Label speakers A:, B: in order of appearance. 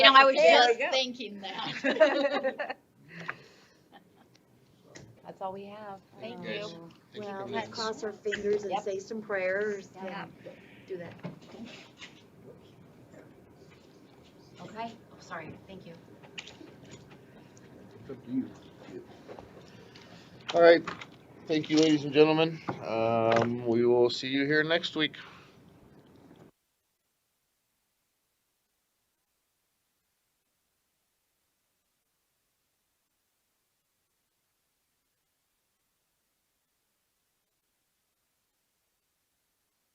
A: know, I was
B: There we
A: just
B: go.
A: thinking that.
C: That's all we have.
A: Thank
D: Yes.
A: you.
D: Thank you for
E: Well,
D: doing
E: let's
D: this.
E: cross our fingers and
C: Yep.
E: say some prayers
C: Yeah.
E: and do that.
C: Okay, oh, sorry, thank you.
D: All right, thank you, ladies and gentlemen. Um, we will see you here next week.